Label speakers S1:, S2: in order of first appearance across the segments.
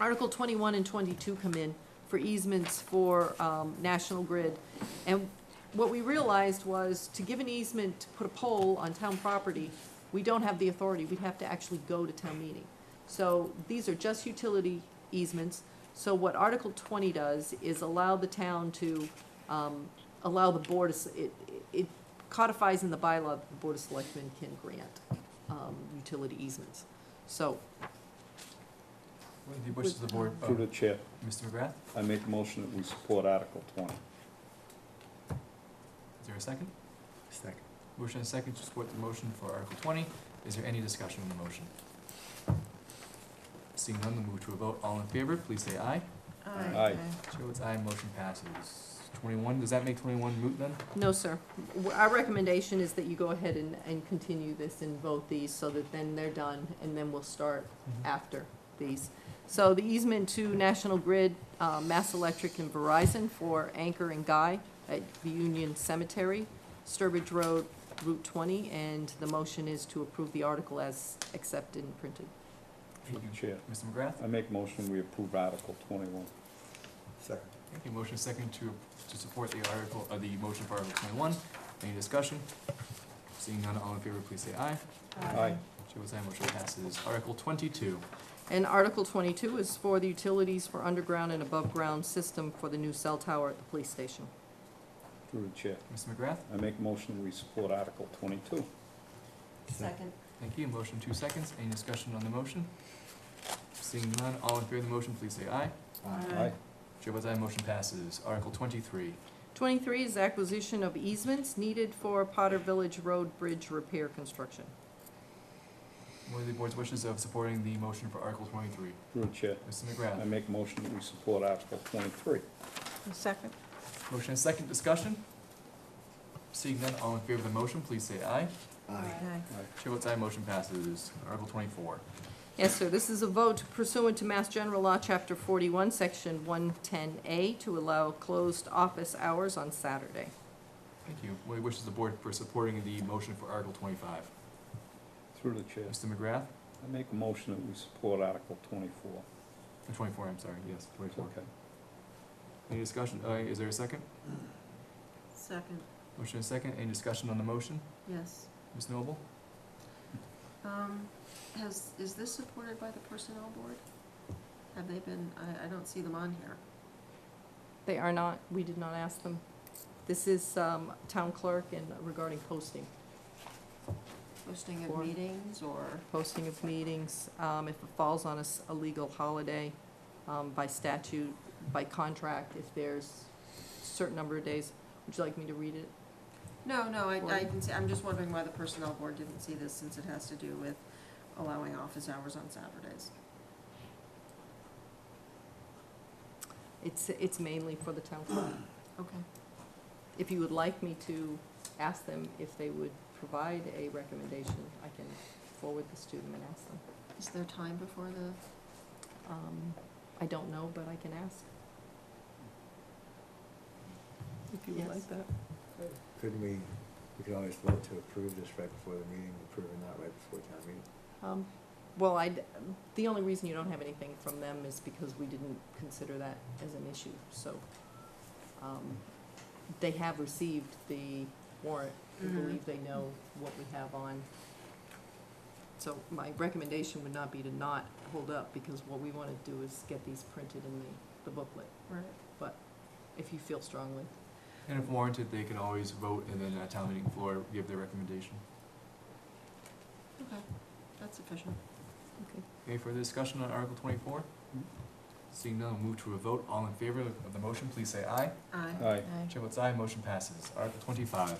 S1: Article twenty-one and twenty-two come in for easements for, um, National Grid. And what we realized was to give an easement to put a pole on town property, we don't have the authority, we'd have to actually go to town meeting. So these are just utility easements, so what Article twenty does is allow the town to, um, allow the board, of s- it, it codifies in the bylaw that the Board of Selectmen can grant, um, utility easements. So,
S2: What are the wishes of the board, uh,
S3: Through the chair,
S2: Mr. McGrath?
S3: I make a motion that we support Article twenty.
S2: Is there a second?
S4: Second.
S2: Motion and a second to support the motion for Article twenty. Is there any discussion on the motion? Seeing none, we'll move to a vote. All in favor, please say aye.
S3: Aye.
S2: Chair votes aye, motion passes. Twenty-one, does that make twenty-one moot then?
S1: no, sir, W- our recommendation is that you go ahead and, and continue this and vote these, so that then they're done, and then we'll start after these. So the easement to National Grid, uh, Mass Electric and Verizon for Anchor and Guy at the Union Cemetery, Sturbridge Road, Route twenty, and the motion is to approve the article as accepted and printed.
S3: Through the chair,
S2: Mr. McGrath?
S3: I make a motion we approve Article twenty-one.
S4: Second.
S2: Okay, motion second to, to support the article, uh, the motion for Article twenty-one. Any discussion? Seeing none, all in favor, please say aye.
S3: Aye.
S2: Chair votes aye, motion passes. Article twenty-two.
S1: And Article twenty-two is for the utilities for underground and above-ground system for the new cell tower at the police station.
S3: Through the chair,
S2: Mr. McGrath?
S3: I make a motion we support Article twenty-two.
S4: Second.
S2: Thank you. Motion two seconds. Any discussion on the motion? Seeing none, all in favor of the motion, please say aye.
S3: Aye.
S2: Chair votes aye, motion passes. Article twenty-three.
S1: Twenty-three is acquisition of easements needed for Potter Village Road Bridge repair construction.
S2: What are the board's wishes of supporting the motion for Article twenty-three?
S3: Through the chair,
S2: Mr.
S3: I
S2: McGrath.
S3: make a motion that we support Article twenty-three.
S1: Second.
S2: Motion and second discussion. Seeing none, all in favor of the motion, please say aye. Chair votes aye, motion passes. Article twenty-four.
S1: Yes, sir, this is a vote pursuant to Mass General Law, Chapter forty-one, Section one ten A, to allow closed office hours on Saturday.
S2: Thank you. What wishes the board for supporting the motion for Article twenty-five?
S3: Through the chair,
S2: Mr. McGrath?
S3: I make a motion that we support Article twenty-four.
S2: Uh, Twenty-four, I'm sorry, yes,
S3: It's
S2: twenty-four.
S3: okay.
S2: Any discussion? Uh, is there a second?
S5: Second,
S2: Motion and second. Any discussion on the motion?
S5: yes.
S2: Ms. Noble?
S5: Um, has, is this supported by the personnel board? Have they been, I, I don't see them on here.
S1: They are not, we did not ask them. This is, um, town clerk and regarding posting,
S5: Posting
S1: Or-
S5: of meetings or,
S1: posting of meetings, um, if it falls on a, s- a legal holiday, um, by statute, by contract, if there's a certain number of days. Would you like me to read it?
S5: no, no, I,
S1: Or-
S5: I can see, I'm just wondering why the personnel board didn't see this since it has to do with allowing office hours on Saturdays.
S1: It's, it's mainly for the town clerk.
S5: Okay.
S1: If you would like me to ask them if they would provide a recommendation, I can forward this to them and ask them.
S5: Is there time before the,
S1: Um, I don't know, but I can ask. If you would
S5: Yes.
S1: like that.
S4: Couldn't we, we could always vote to approve this right before the meeting, approve or not right before town meeting?
S1: Um, Well, I, the only reason you don't have anything from them is because we didn't consider that as an issue, so. um, They have received the warrant, we
S5: Mhm.
S1: believe they know what we have on. So my recommendation would not be to not hold up, because what we want to do is get these printed in the, the booklet,
S5: right?
S1: if you feel strongly.
S2: And if warranted, they can always vote and then at town meeting floor, give their recommendation.
S5: Okay, that's sufficient.
S2: Any further discussion on Article twenty-four? Seeing none, we'll move to a vote. All in favor of the motion, please say aye.
S5: Aye.
S3: Aye,
S2: Chair votes aye, motion passes. Article twenty-five.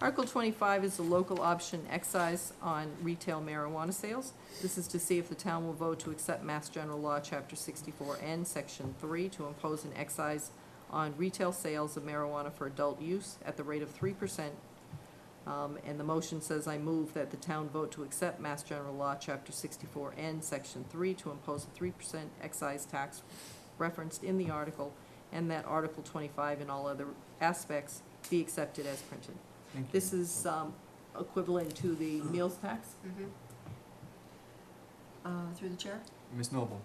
S1: Article twenty-five is the local option excise on retail marijuana sales. This is to see if the town will vote to accept Mass General Law, Chapter sixty-four N, Section three, to impose an excise on retail sales of marijuana for adult use at the rate of three percent. Um, and the motion says, I move that the town vote to accept Mass General Law, Chapter sixty-four N, Section three, to impose a three percent excise tax referenced in the article, and that Article twenty-five and all other aspects be accepted as printed.
S2: Thank you.
S1: This is um, equivalent to the meals tax?
S5: Mm-hmm. Uh, through the chair?
S2: Ms. Noble?